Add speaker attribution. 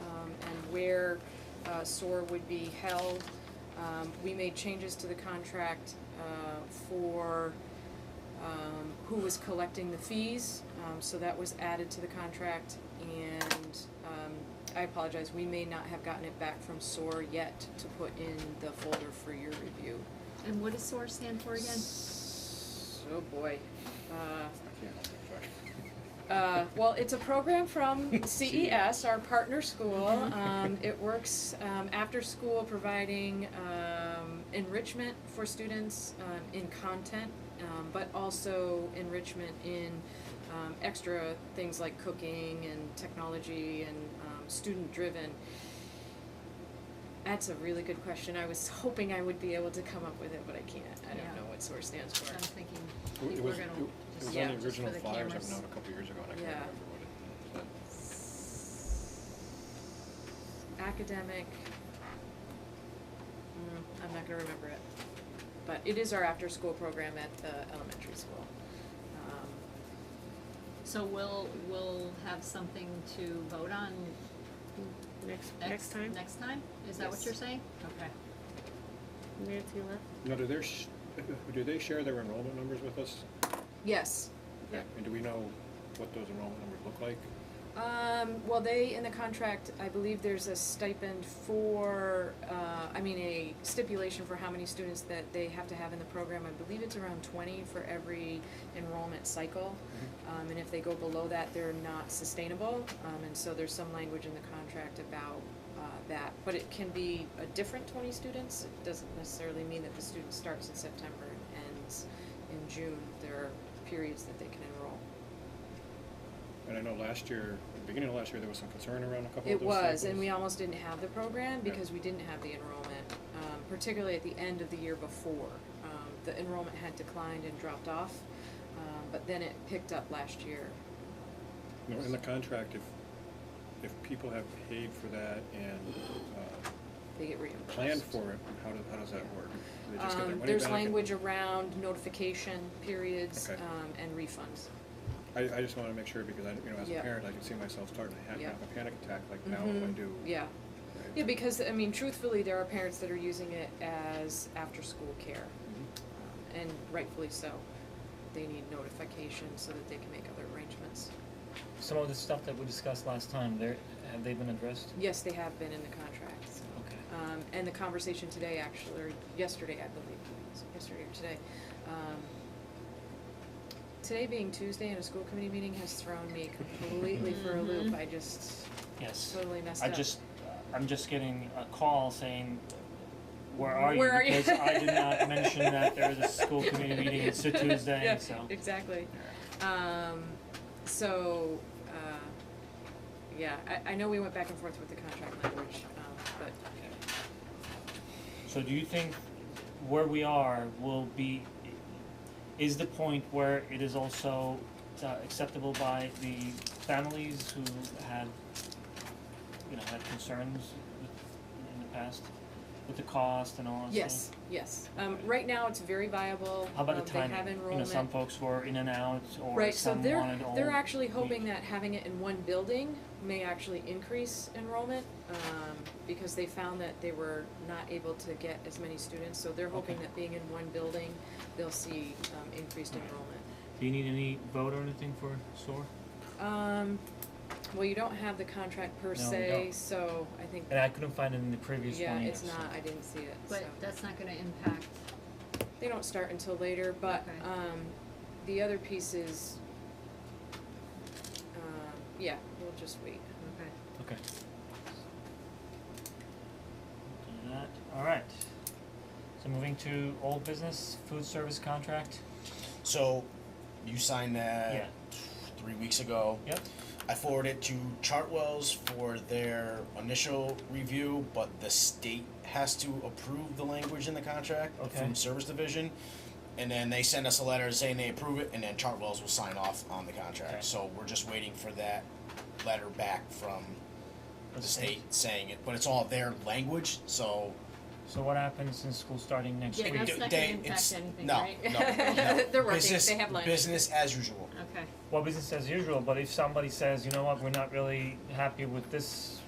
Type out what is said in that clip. Speaker 1: um, where uh, SOAR would be held. Um, We made changes to the contract uh, for um, who was collecting the fees, um, so that was added to the contract. And um, I apologize, we may not have gotten it back from SOAR yet to put in the folder for your review.
Speaker 2: And what does SOAR stand for again?
Speaker 1: Oh, boy. Uh, uh, well, it's a program from CES, our partner school. Um, it works um, after school, providing um, enrichment for students um, in content, um, but also enrichment in um, extra things like cooking and technology and um, student driven. That's a really good question. I was hoping I would be able to come up with it, but I can't. I don't
Speaker 2: Yeah.
Speaker 1: know what SOAR stands for.
Speaker 2: I'm thinking,
Speaker 3: It
Speaker 2: people are
Speaker 3: was,
Speaker 2: gonna,
Speaker 3: it it
Speaker 2: just,
Speaker 3: was
Speaker 1: yeah,
Speaker 3: on
Speaker 2: just
Speaker 3: the original
Speaker 2: for the
Speaker 3: flyers I
Speaker 2: cameras.
Speaker 3: found a couple years ago and I can't
Speaker 1: Yeah.
Speaker 3: remember what it,
Speaker 1: academic. Mm, I'm not gonna remember it, but it is our after-school program at the elementary school. Um,
Speaker 2: So we'll, we'll have something to vote on
Speaker 4: Next, next
Speaker 2: next,
Speaker 4: time,
Speaker 2: next time? Is that what
Speaker 1: Yes.
Speaker 2: you're saying? Okay.
Speaker 4: Nancy left.
Speaker 3: Now, do their, sh- do they share their enrollment numbers with us?
Speaker 1: Yes.
Speaker 3: Okay. And do we know what those enrollment numbers look like?
Speaker 1: Um, well, they, in the contract, I believe there's a stipend for, uh, I mean, a stipulation for how many students that they have to have in the program. I believe it's around twenty for every enrollment cycle. Um, and if they go below that, they're not sustainable. Um, and so there's some language in the contract about, uh, that. But it can be a different twenty students. It doesn't necessarily mean that the student starts in September and ends in June. There are periods that they can enroll.
Speaker 3: And I know last year, at the beginning of last year, there was some concern around a couple of
Speaker 1: It
Speaker 3: those
Speaker 1: was, and
Speaker 3: cycles.
Speaker 1: we almost didn't have the program
Speaker 3: Yeah.
Speaker 1: because we didn't have the enrollment, um, particularly at the end of the year before. Um, the enrollment had declined and dropped off, um, but then it picked up last year.
Speaker 3: No, in the contract, if, if people have paid for that and, uh,
Speaker 1: They get reimbursed.
Speaker 3: planned for it, how do, how does that work? They just get their
Speaker 1: Um,
Speaker 3: money
Speaker 1: there's
Speaker 3: back and-
Speaker 1: language around notification periods,
Speaker 3: Okay.
Speaker 1: um, and refunds.
Speaker 3: I, I just wanna make sure because I, you know, as a
Speaker 1: Yeah.
Speaker 3: parent, I can see myself starting to have
Speaker 1: Yeah.
Speaker 3: have a panic attack like now if I
Speaker 1: Mhm.
Speaker 3: do.
Speaker 1: Yeah.
Speaker 3: right?
Speaker 1: Yeah, because, I mean, truthfully, there are parents that are using it as after-school care,
Speaker 3: Mhm.
Speaker 1: um, and rightfully so. They need notification so that they can make other arrangements.
Speaker 5: Some of the stuff that we discussed last time, there, have they been addressed?
Speaker 1: Yes, they have been in the contract.
Speaker 5: Okay.
Speaker 1: Um, and the conversation today actually, or yesterday, I believe, was it yesterday or today, um, today being Tuesday and a school committee meeting has thrown me completely for a loop. I just
Speaker 5: Yes.
Speaker 1: totally messed
Speaker 5: I
Speaker 1: up.
Speaker 5: just, I'm just getting a call saying, where are you?
Speaker 1: Where are you?"
Speaker 5: Because I did not mention that there is a school committee meeting, it's a Tuesday,
Speaker 1: Yeah,
Speaker 5: so.
Speaker 1: Exactly. Um, so, uh, yeah, I, I know we went back and forth with the contract language, um, but
Speaker 5: So do you think where we are will be, is the point where it is also uh, acceptable by the families who had, you know, had concerns with, in the past, with the cost and all that stuff?
Speaker 1: yes, yes. Um, right now, it's very viable.
Speaker 5: How about
Speaker 1: Um,
Speaker 5: the
Speaker 1: They have
Speaker 5: timing? You know,
Speaker 1: enrollment.
Speaker 5: some folks were in and out, or
Speaker 1: Right, so
Speaker 5: some
Speaker 1: they're,
Speaker 5: wanted all.
Speaker 1: they're actually hoping
Speaker 5: week.
Speaker 1: that having it in one building may actually increase enrollment, um, because they found that they were not able to get as many students, so they're hoping
Speaker 5: Okay.
Speaker 1: that being in one building, they'll see, um, increased
Speaker 5: Alright.
Speaker 1: enrollment.
Speaker 5: Do you need any vote or anything for SOAR?
Speaker 1: Um, well, you don't have the contract per
Speaker 5: No, we
Speaker 1: se,
Speaker 5: don't.
Speaker 1: so I think,
Speaker 5: And I couldn't find it in the previous one
Speaker 1: yeah,
Speaker 5: either,
Speaker 1: it's
Speaker 5: so-
Speaker 1: not, I didn't see it, so.
Speaker 2: But that's not gonna impact,
Speaker 1: They don't start until later, but,
Speaker 2: Okay.
Speaker 1: um, the other piece is, um, yeah, we'll just wait.
Speaker 2: okay.
Speaker 5: Okay. Do that, alright. So moving to old business, food service contract,
Speaker 6: So, you signed that
Speaker 5: Yeah.
Speaker 6: three weeks ago.
Speaker 5: yep,
Speaker 6: I forwarded it to Chartwell's for their initial review, but the state has to approve the language in the contract
Speaker 5: Okay.
Speaker 6: from Service Division. And then they send us a letter saying they approve it, and then Chartwell's will sign off on the contract.
Speaker 5: Okay.
Speaker 6: So, we're just waiting for that letter back from the
Speaker 5: Okay.
Speaker 6: state saying it, but it's all their language, so
Speaker 5: so what happens since school starting next
Speaker 2: Yeah,
Speaker 5: week?
Speaker 6: we
Speaker 2: that's
Speaker 6: do-
Speaker 2: not gonna
Speaker 6: they-
Speaker 2: impact
Speaker 6: it's-
Speaker 2: anything,
Speaker 6: no,
Speaker 2: right?
Speaker 6: No, no,
Speaker 1: They're working.
Speaker 6: Business-
Speaker 1: They have language.
Speaker 6: Business as usual.
Speaker 2: Okay.
Speaker 5: Well, business as usual, but if somebody says, you know what, we're not really happy with this